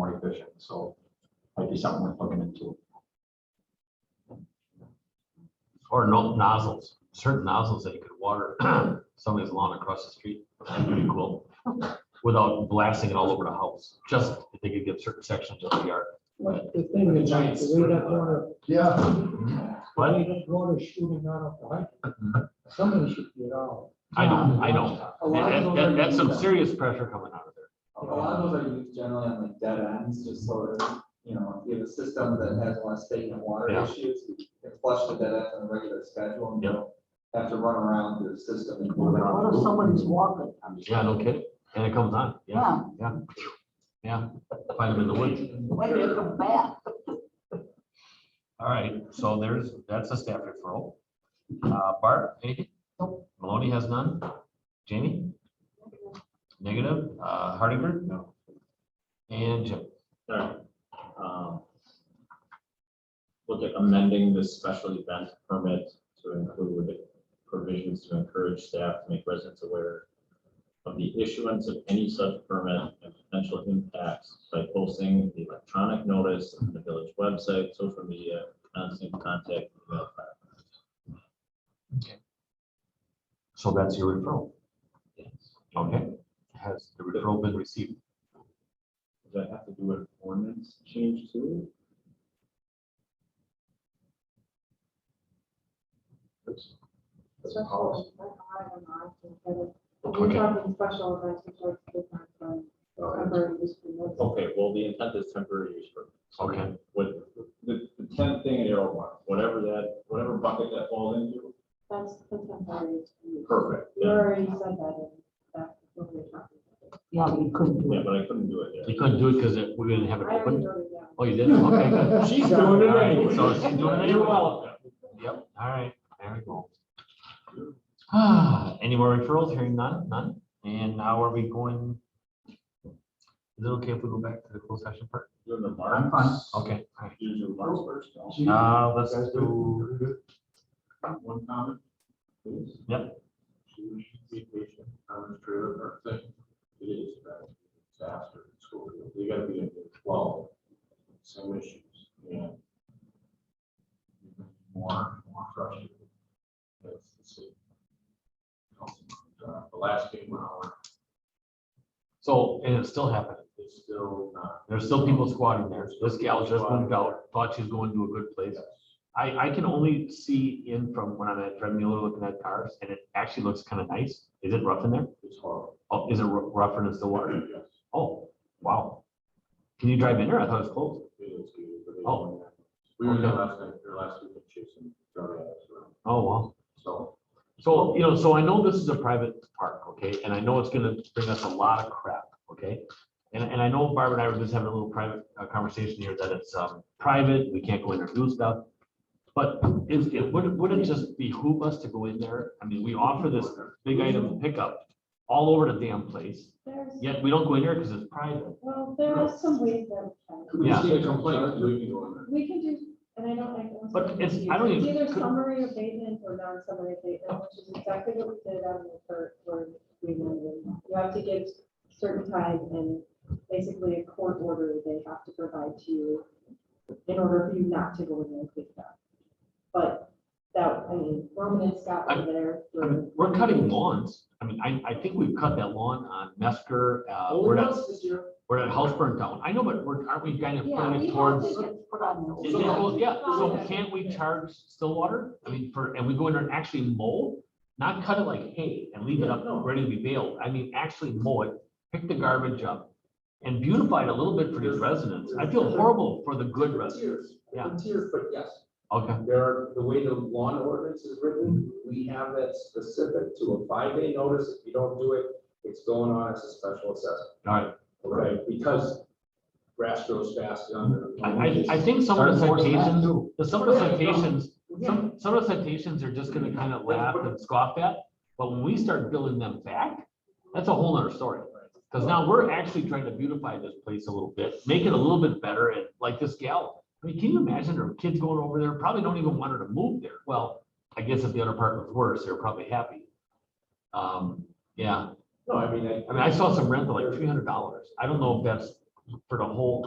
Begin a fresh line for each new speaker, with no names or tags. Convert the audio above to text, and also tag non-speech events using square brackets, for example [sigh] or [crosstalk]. provision, so might be something worth looking into.
Or no nozzles, certain nozzles that you could water [clears throat] somebody's lawn across the street, that'd be cool. Without blasting it all over the house, just if they could give certain sections of the yard.
But the thing is, like, we don't wanna,
Yeah.
we
But
don't wanna shooting out of the
[laughs]
height. Somebody should get out.
I know, I know,
A lot
That-
of those
that-
are
that's some
used-
serious pressure coming out of there.
A lot of those are used generally on like dead ends, just so that, you know, if you have a system that has a lot of state and water
Yeah.
issues, you can flush the dead end on a regular schedule and you
Yeah.
don't have to run around your system and.
What if somebody's walking?
Yeah, no kidding, and it comes on, yeah,
Yeah,
yeah, yeah, find them in the woods.
wait, they come back.
All right, so there's, that's a staff referral. Uh, Bart, anything? Maloney has none. Jamie? Negative. Uh, Hardinger?
No.
And Jim?
Alright, um. Look at amending this special event permit to include provisions to encourage staff to make residents aware. Of the issuance of any such permit and potential impacts by posting the electronic notice on the village website, social media, constant contact. email.
So that's your referral.
Yes.
Okay. Has the referral been received?
Does that have to do with ordinance change too?
Special event, I don't know, I think that it- if
Okay.
We're talking special events, which are different from temporary use permits.
Okay, well, the intent is temporary use permit.
Okay.
With the, the tenth thing in arrow one, whatever that, whatever bucket that falls into,
That's the temporary. use permit.
perfect.
You
Yeah,
already said that in that, what we we're talking about.
Yeah, we couldn't do
Yeah,
it.
but I couldn't do it
You
there.
couldn't do it because we didn't have it
I already
open?
wrote it down.
Oh, you didn't? Okay, good.
She's
doing it All right, anyway. so she's doing it anyway.
welcome.
Yep, all right, there we go. Ah, Any more referrals? Hearing none, none. And now are we going? Is it okay if we go back to the closed session part?
Doing the
I'm fine.
marks.
Okay, all right.
Do the marks first. no?
Uh, let's do,
One comment, please.
Yep.
You should be patient, I'm sure that our thing, it is about disaster in school, you gotta be in twelve, same issues, yeah. More, more frustrated. That's the same. Uh, The last game, hour
so, and it's still happening.
is still not.
There's still people squatting there. This gal just moved out, thought she was going to a good place. I, I can only see in from when I'm at Fred Mueller looking at cars and it actually looks kind of nice. Is it rough in there?
It's horrible.
Oh, is it rou- rougher than Stillwater?
Yes,
Oh, wow. Can you drive in there? I thought it was closed.
it is, but they-
Oh.
We were there last night, or last week, chasing, driving,
Oh, wow.
so.
So, you know, so I know this is a private park, okay, and I know it's gonna bring us a lot of crap, okay? And, and I know Barbara and I were just having a little private uh, conversation here that it's, um, private, we can't go in there and do stuff. But is, it, would, would it just behoove us to go in there? I mean, we offer this big item pickup all over the damn place,
There's,
yet we don't go in there because it's private.
well, there are some ways that we can.
We just
Yeah.
need a complaint, we can go in there.
We can do, and I don't like.
But it's- I don't
It's
even-
either summary abatement or non-summary abatement, which is exactly what we did on the third, where we, amended. you have to give certain time and basically a court order they have to provide to you in order for you not to go in and clean that. But that, I mean, Roman and Scott were there.
I
for-
mean, We're cutting lawns. I mean, I, I think we've cut that lawn on Mesker, uh, we're at, we're at House Burn Down. I know, but we're, aren't we kind of
Yeah,
putting
we
it
have
towards?
to-
It's put on the-
Is it close? Yeah, so can't we charge Stillwater? I mean, for, and we go in there and actually mow, not cut it like hay and leave it up, ready to be baled. I mean, actually mow it, pick the garbage up. And beautify it a little bit for these residents. I feel horrible for the good residents.
Tiers,
Yeah.
tiers, but yes,
Okay,
there are, the way the lawn ordinance is written, we have that specific to a five-day notice. If you don't do it, it's going on as a special assessment.
all right.
Right, because grass grows fast under.
I, I, I think some of the citations, the- some of the citations,
Yeah,
some, some of the citations are just gonna kind of laugh and scoff at. But when we start building them back, that's a whole nother story. Because now we're actually trying to beautify this place a little bit, make it a little bit better, and like this gal, I mean, can you imagine her kids going over there, probably don't even want her to move there, well, I guess if the other part was worse, they're probably happy. Um, yeah,
no, I mean, I.
I mean, I saw some rent for like three hundred dollars, I don't know if that's for the whole